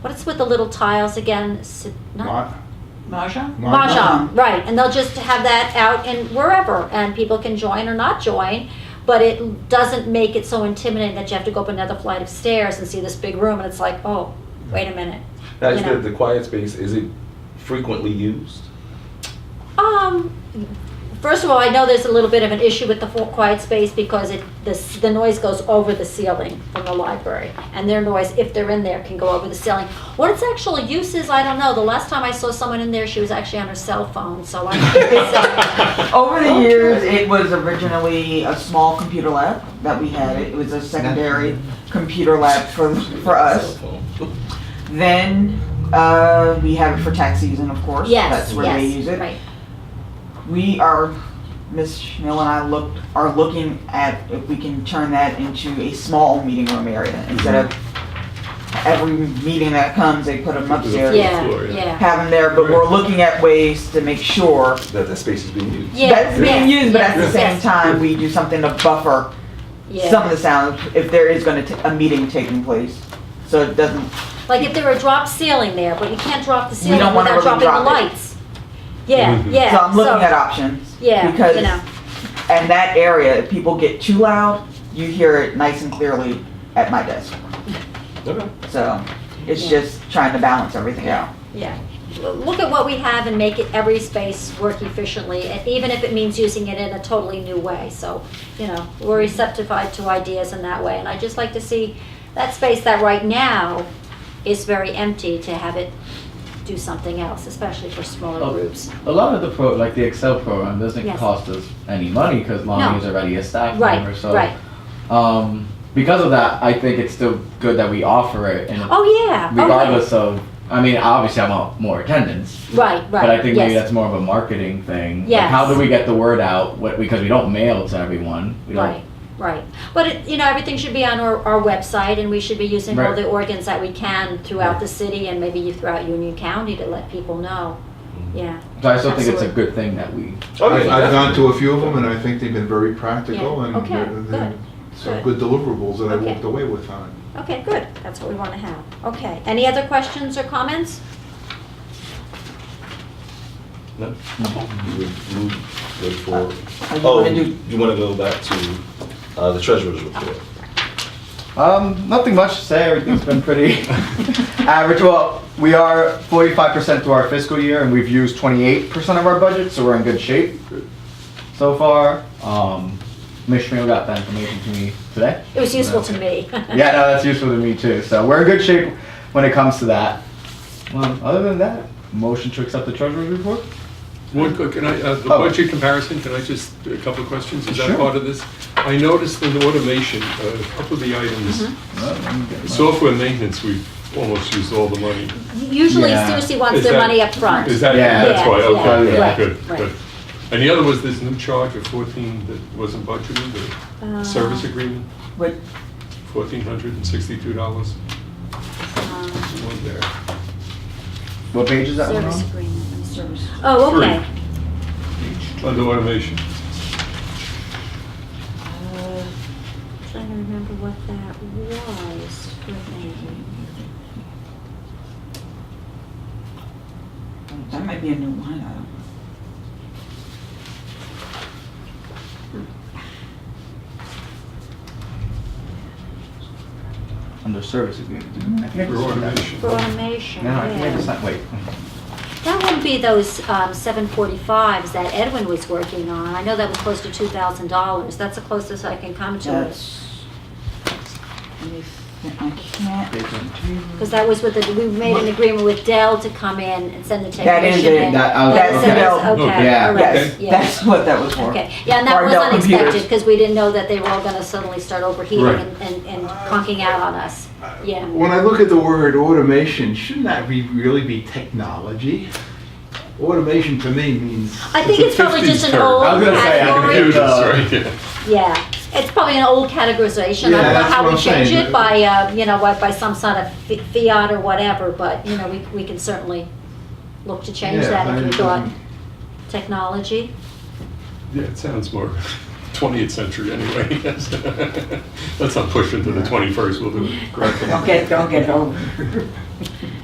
What's with the little tiles again? S- Not, Ma- Maja? Mahjong, right? And they'll just have that out in wherever, and people can join or not join. But it doesn't make it so intimidating that you have to go up another flight of stairs and see this big room, and it's like, oh, wait a minute. Now, is you know. the, the quiet space, is it frequently used? Um, first of all, I know there's a little bit of an issue with the full quiet space because it, the, s- the noise goes over the ceiling from the library. And their noise, if they're in there, can go over the ceiling. What its actual use is, I don't know. The last time I saw someone in there, she was actually on her cell phone, so I don't know. Over the years, it was originally a small computer lab that we had. It was a secondary computer lab for, for Cell us. phone. Then uh, we have it for tax season, of course. Yes, That's where they yes, use it. right. We are, Ms. Schmill and I looked, are looking at if we can turn that into a small meeting room area instead of every meeting that comes, they put them upstairs. Yeah, floor, yeah. yeah. Have them there, but we're looking at ways to make sure That, that space is being used. Yeah, that's being yes, used, but at the yes, same yes. time, we do something to buffer Yeah. some of the sounds if there is going to a meeting taking place. So it doesn't. Like if there were a drop ceiling there, but you can't drop the ceiling don't wanna without really dropping the drop it. Mm-hmm. lights. Yeah, Mhm. yeah. so I'm looking at options. Yeah, because you know. and that area, if people get too loud, you hear it nice and clearly at my desk. Okay. So it's Yeah. just trying to balance everything out. Yeah, L- look at what we have and make it, every space work efficiently, and even if it means using it in a totally new way. So, you know, we're receptive to ideas in that way, and I just like to see that space that right now is very empty to have it do something else, especially for smaller Oh. groups. A lot of the pro, like the Excel program, doesn't Yes. cost us any money because No. Lonnie is already a staff Right, member. So, right. um, because of that, I think it's still good that we offer it, and Oh, yeah. Oh, yeah. regardless of, I mean, obviously I want more attendance, Right, right. but I think maybe yes. that's more of a marketing thing. Like, Yes. how do we get the word out? What, because we don't mail to everyone. We don't, Right, right. But, it- you know, everything should be on our, our website, and we should be using all Right. the organs that we can throughout Right. the city and maybe throughout Union County to let people know. Mm-hmm. Yeah, So I still think it's a Absolutely. good thing that we. Oh, I've, yeah, I've gone to definitely. a few of them and I think they've been very practical Yeah. and Okay, they're- they're good, some good deliverables that I Okay. walked away with on it. okay, good. That's what we want to have. Okay, any other questions or comments? No? We move good for- Uh, I just Oh, want to do you want to go back to uh, the treasurer's report? Um, nothing much to say. Everything's been pretty average. Well, we are 45% through our fiscal year, and we've used 28% of our budget, so we're in good shape so far. Um, Ms. Schmiel got that information to me today. It was useful to me. Yeah, no, that's useful to me too. So we're in good shape when it comes to that. Um, other than that, motion to accept the treasurer's report. One, quick- can I, uh, the Oh. budget comparison, can I just, a couple of questions? Is Sure. that part of this? I noticed in automation, uh, a couple of the items, Well, let me get my- software maintenance, we've almost used all the money. Usually Yeah. Susie wants Is their that- money up front. Is that, Yeah. that's why, Yeah, okay, yeah, yeah, right, good, right. Uh-huh. good. And the other was this new charge of 14 that wasn't budgeted, Uh, the service agreement, what $1,462, um, one there. What page is that one Service on? agreement, I'm sorry. Oh, okay. Under automation, Uh, Trying to remember what that was. that might be a new line item. Under service agreement. I think I just for saw that. automation. For automation, No, I think I yeah. just saw- wait. That wouldn't be those um, 745s that Edwin was working on. I know that was close to $2,000. That's the closest I can come to it. That's. let me think. I can't. Page one. Because that was with, the we made an agreement with Dell to come in and send the That is technician it. in. That- I was- That's okay. it, Dell. okay, Yeah. all Yes, right, that's yeah. what that was for. Okay, yeah, and that For was Dell computers. unexpected, because we didn't know that they were all gonna suddenly start overheating Right. and, and and conking out on us. Yeah, When I look at the word automation, shouldn't that be, really be technology? Automation to me means. I think it's probably just an old I was gonna say, I uh, category. confused. Computers, right, yeah. Yeah, it's probably an old categorization. I Yeah, don't know that's how what we I'm change saying. it by, uh, you know, by by some sort of fi- fiat or whatever, but, you know, we, we can certainly look to change Yeah, that I- if we thought technology. Yeah, it sounds more 20th century anyway. Let's not push into the 21st, we'll do it correctly. Don't get, don't get old.